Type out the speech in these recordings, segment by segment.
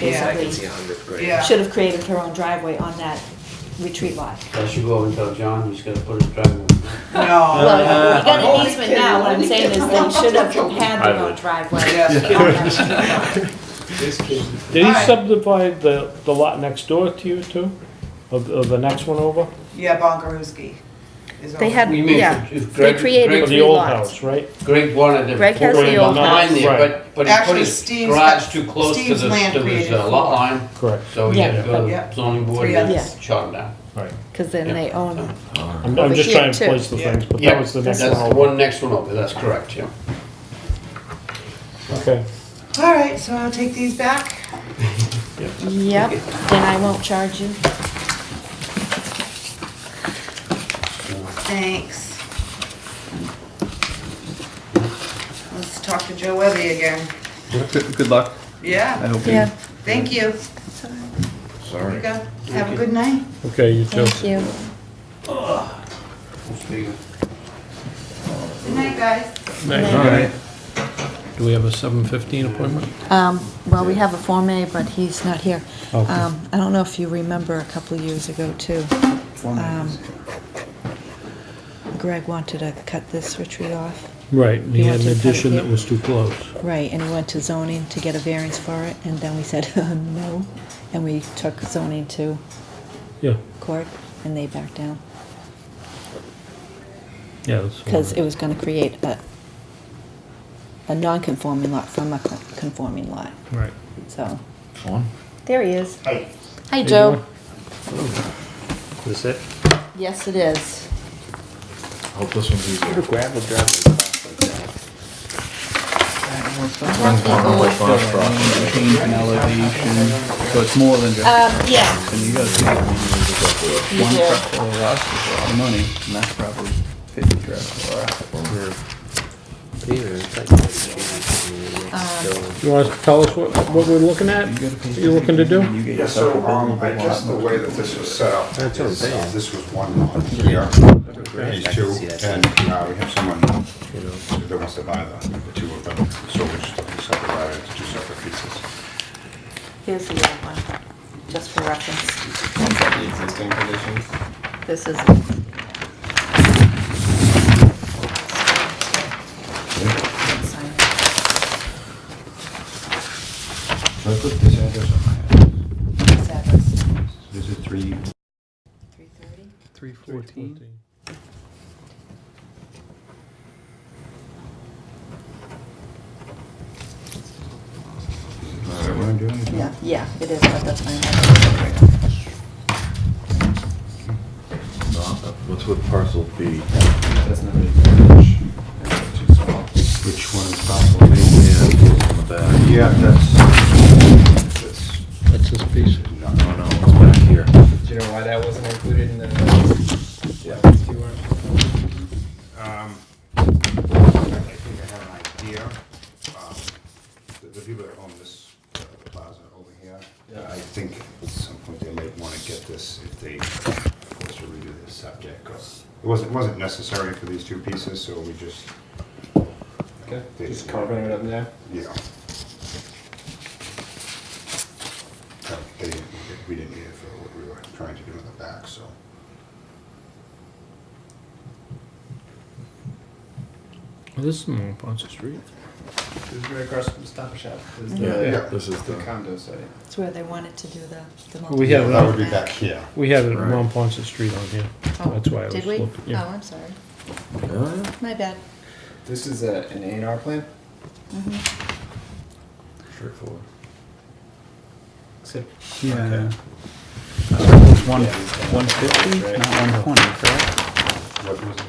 Yeah, I basically can see a hundred grand. Yeah. should have created her own driveway on that retreat lot. I should go over and tell John he's gonna put his driveway. No. Well, we got an Only easement kidding, now, what I'm only saying is they should have had their own driveway. Yes. on that. This kid, Did he Alright. subdivide the, the lot next door to you too? Of, of the next one over? Yeah, Bonkarooski. is They over. had, You mean Uh, yeah, if- if They Greg- created Greg- Of three the old lots. house, right? Greg wanted to. Greg has put the it old behind house. there, Right. But, but he put Actually, his Steve's garage got- too close to Steve's the, land to his created uh, lot four. line, Correct, so he had to go to Yeah. the zoning board Three and others. shot him down. right. because then they own, I'm, Over I'm just here, trying to too. place the Yeah. things, but Yeah, that was the next one That's the over. one next one over, that's correct, yeah. Okay. All right, so I'll take these back. yep, then I won't charge you. Thanks. Let's talk to Joe Webby again. Good good luck. I Yeah, hope you Yeah, thank you. There sorry. you go. Have a good night. Okay, you too. thank you. Good night, guys. All right. Do we have a seven fifteen appointment? Um, Well, we have a Form A, but he's not here. Okay. Um, I don't know if you remember a couple of years ago, too. um, Greg wanted to cut this retreat off, Right, and he You had want an to cut it addition that here? was too close. right, and he went to zoning to get a variance for it, and then we said, uh, no, and we took zoning to Yeah, court, and they backed down, yeah. because it was gonna create a, a non-conforming lot from a co- conforming lot, Right. so. One. There he is. Hi. Hi, Joe. Is it? Yes, it is. Hope this one's easier. Gravel driveway. Runs one way across property. Change in elevation, so it's more than just, Um, yeah, and you gotta see that you one do. truck or less is a lot of money, and that's probably fifty trucks or You want to tell us what, what we're looking at? You gotta pay What you're looking to do? You get Yeah, yourself so, a um, I big guess the lot. way that this was set up That's what I'm is, uh, saying. this was one lot here, Great, these I two, can see that. and now we have someone that wants to buy the the two of them, so we just subdivided into two separate pieces. Here's the other one, just for reference. the existing conditions? This is, So I put this address on my house. This is three, Three fourteen. is that what I'm doing? yeah, yeah, it is, but that's fine. What's with parcel B? That's not really. Which one is possible? Yeah, it's in the back. Yeah, that's, that's That's this piece. not, No, no, it's back here. Do you know why that wasn't included in the? Yeah. Um, I think I have an idea. Um, The the people that own this uh, plaza over here, Yeah. I think at some point they might want to get this if they want to redo the subject. 'cause It wasn't, wasn't necessary for these two pieces, so we just, Okay, just carving it up now. you know. Uh, They, didn't- we didn't need it for what we were trying to do in the back, so. This is more Ponce Street. This is right across from the Stop Shop. This is Yeah, Yeah. this is the the. condo site. It's where they wanted to do the, the. We have, That it would on- be back here. we have it Right. on Ponce Street on here. Oh, That's why I was Did we? looking, Oh, yeah. I'm sorry. Oh, yeah. My bad. This is a, an A and R plan, Straightforward. except Okay. Okay. One, one fifty, not one twenty, correct?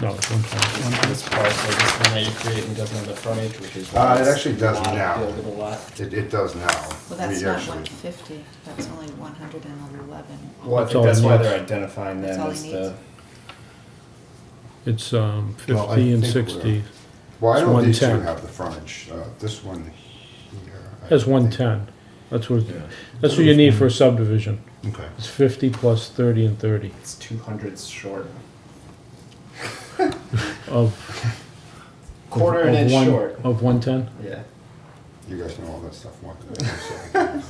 No, it's on Ponce. this parcel, this one that you create and doesn't have the frontage, which is. Uh, why it it's actually does not now. Buildable lot. It, it does now. Well, that's We not actually- one fifty, that's only one hundred and eleven. Well, I That's think all that's it why needs. they're identifying That's them all as it the. needs. It's um, Well, I 50 and think we're- 60. Well, I It's don't these two 110. have the frontage, uh, this one here. I That's think- 110. That's what, Yeah. that's what you need for a subdivision. Okay. It's 50 plus 30 and 30 It's two hundreds short. of. Quarter of an inch one- short. Of 110? Yeah. You guys know all that stuff more than I do, so.